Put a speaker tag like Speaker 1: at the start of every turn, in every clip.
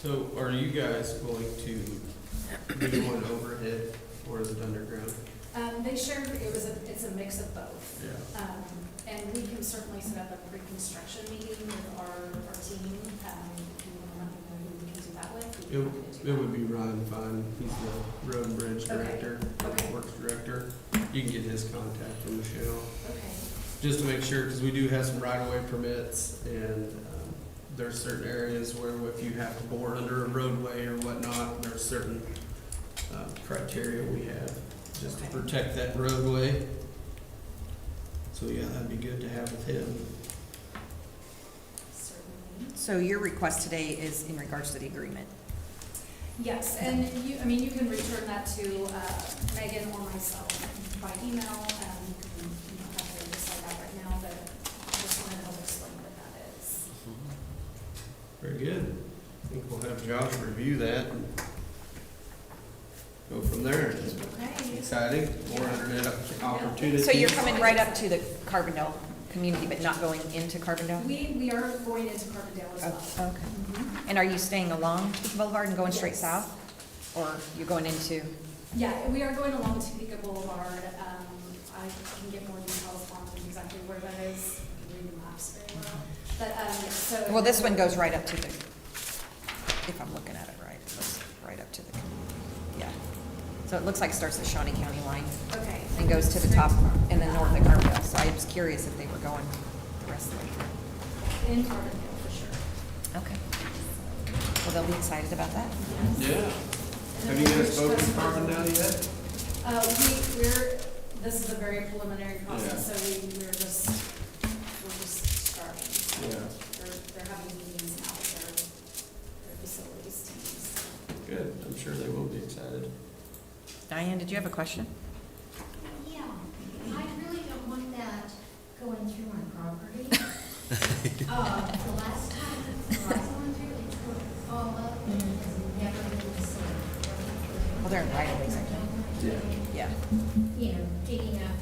Speaker 1: So are you guys going to do one overhead or is it underground?
Speaker 2: Um, they shared, it was a, it's a mix of both.
Speaker 1: Yeah.
Speaker 2: Um, and we can certainly set up a pre-construction meeting with our, our team, um, if you want to let me know who we can do that with. we can do
Speaker 1: It
Speaker 2: that.
Speaker 1: would be Ryan Fine, he's the road and bridge
Speaker 2: Okay.
Speaker 1: director,
Speaker 2: Okay.
Speaker 1: works director. You can get his contact from Michelle,
Speaker 2: Okay,
Speaker 1: just to make sure, because we do have some right-of-way permits and um, there's certain areas where if you have to bore under a roadway or whatnot, there's certain uh, criteria we have just to
Speaker 2: Okay.
Speaker 1: protect that roadway. So yeah, that'd be good to have with him.
Speaker 2: certainly.
Speaker 3: So your request today is in regards to the agreement?
Speaker 2: Yes, and you, I mean, you can return that to, uh, Megan or myself by email, um, you can, you don't have to decide that right now, but I just wanted to help explain what that is.
Speaker 1: Mm-hmm. Very good. I think we'll have Josh review that and go from there. It's
Speaker 2: Okay.
Speaker 1: Exciting, more internet op- opportunities.
Speaker 3: So you're coming right up to the Carbondale community, but not going into Carbondale?
Speaker 2: We, we are going into Carbondale as
Speaker 3: Oh,
Speaker 2: well.
Speaker 3: Okay.
Speaker 2: Mhm.
Speaker 3: And are you staying along Topeka Boulevard and going straight
Speaker 2: Yes.
Speaker 3: south? Or you're going into,
Speaker 2: Yeah, we are going along Topeka Boulevard. Um, I can get more details on exactly where that is, I can read the maps very well. But, um, so.
Speaker 3: well, this one goes right up to the, if I'm looking at it right, it looks right up to the, yeah. So it looks like it starts at Shawnee County line
Speaker 2: Okay.
Speaker 3: and goes to the top and then north of Carbondale. So I was curious if they were going the rest of the way.
Speaker 2: In Carbondale, for sure.
Speaker 3: Okay. Well, they'll be excited about that.
Speaker 1: Yeah.
Speaker 2: And
Speaker 1: Have
Speaker 2: then
Speaker 1: you guys
Speaker 2: we'll reach
Speaker 1: spoken to
Speaker 2: West
Speaker 1: Carbondale yet?
Speaker 2: Uh, we, we're, this is a very preliminary process,
Speaker 1: Yeah.
Speaker 2: so we, we're just, we're just starting. So
Speaker 1: Yeah.
Speaker 2: They're, they're having meetings now with their, their facilities teams.
Speaker 1: Good, I'm sure they will be excited.
Speaker 3: Diane, did you have a question?
Speaker 4: Yeah, I really don't want that going through my property. Uh, The last time Verizon went through, it took all up and has never been the same.
Speaker 3: Well, they're in right of ways, I think.
Speaker 1: Yeah.
Speaker 3: Yeah.
Speaker 4: You know, digging up,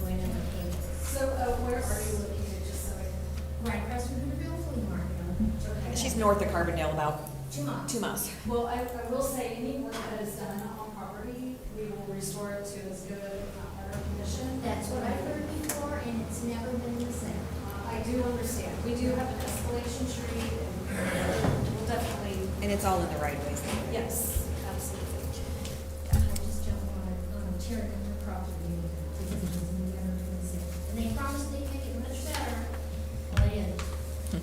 Speaker 4: going on the cables.
Speaker 2: So, uh, where are you located, just so I can?
Speaker 4: Right across from Hooterville Flea Market.
Speaker 2: Okay.
Speaker 3: She's north of Carbondale, about
Speaker 4: Two miles.
Speaker 3: two miles.
Speaker 2: Well, I, I will say, any work that is done on property, we will restore it to as good, if not better condition.
Speaker 4: That's what I've heard before, and it's never been the same.
Speaker 2: Uh, I do understand, we do have an escalation tree, and we'll definitely,
Speaker 3: And it's all in the right of ways.
Speaker 2: yes, absolutely.
Speaker 4: I just don't want to um, tear down the property because it's never been the same. And they promised they'd make it much better. Well, they didn't.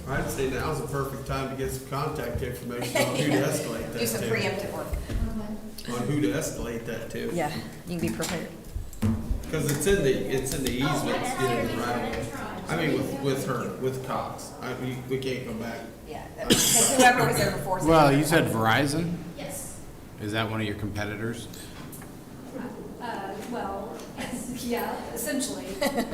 Speaker 1: I'd say now's the perfect time to get some contact information on who to escalate that to.
Speaker 3: Do some preemptive work.
Speaker 4: Okay.
Speaker 1: On who to escalate that to.
Speaker 3: Yeah, you can be prepared.
Speaker 1: Because it's in the, it's in the
Speaker 4: Oh,
Speaker 1: easement, it's
Speaker 4: that's
Speaker 1: in the
Speaker 4: everything
Speaker 1: right of way.
Speaker 4: that
Speaker 1: I
Speaker 4: I tried.
Speaker 1: mean, with, with her, with Cox, I, we, we can't go back.
Speaker 3: Yeah. Because whoever was there before. is-
Speaker 5: Well, you said Verizon?
Speaker 4: Yes.
Speaker 5: Is that one of your competitors?
Speaker 2: Uh, well, yeah, essentially.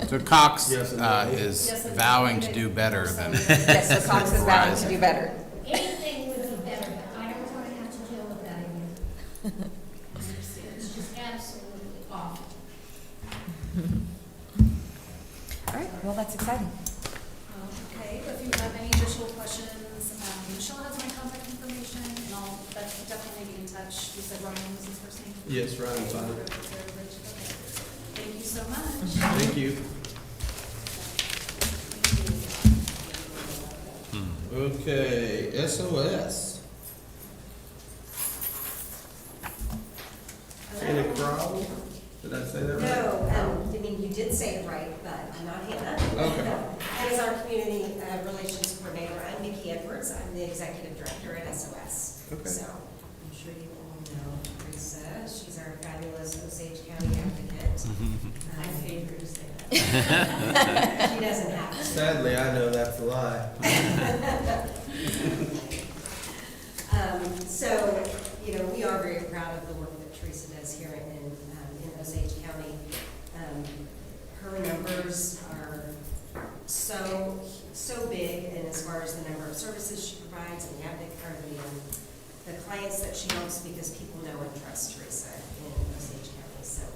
Speaker 5: So Cox
Speaker 1: Yes, and
Speaker 5: uh,
Speaker 1: no.
Speaker 5: is
Speaker 2: Yes, and
Speaker 5: vowing
Speaker 2: they-
Speaker 5: to do better than,
Speaker 3: Yes, so Cox is vowing to do better.
Speaker 4: Anything would be better, but I don't want to have to deal with that again. It's just absolutely awful.
Speaker 3: All right, well, that's exciting.
Speaker 2: Okay, if you have any additional questions, um, Michelle has my contact information, and I'll def- definitely be in touch. You said Ryan was his first name?
Speaker 1: Yes, Ryan Fine.
Speaker 2: Thank you so much.
Speaker 1: Thank you. Hmm, Okay, SOS. Hannah Crowell, did I say that right?
Speaker 6: No, um, I mean, you did say it right, but I'm not Hannah.
Speaker 1: Okay,
Speaker 6: As our community uh, relations coordinator, I'm Nikki Edwards, I'm the executive director at SOS.
Speaker 1: Okay.
Speaker 6: So, I'm sure you all know Teresa, she's our fabulous Osage County advocate. I paid her to say that. She doesn't have to.
Speaker 1: sadly, I know that's a lie.
Speaker 6: Um, So, you know, we are very proud of the work that Teresa does here in, um, in Osage County. Um, Her numbers are so, so big, and as far as the number of services she provides and the advocate, or the, um, the clients that she helps, because people know and trust Teresa in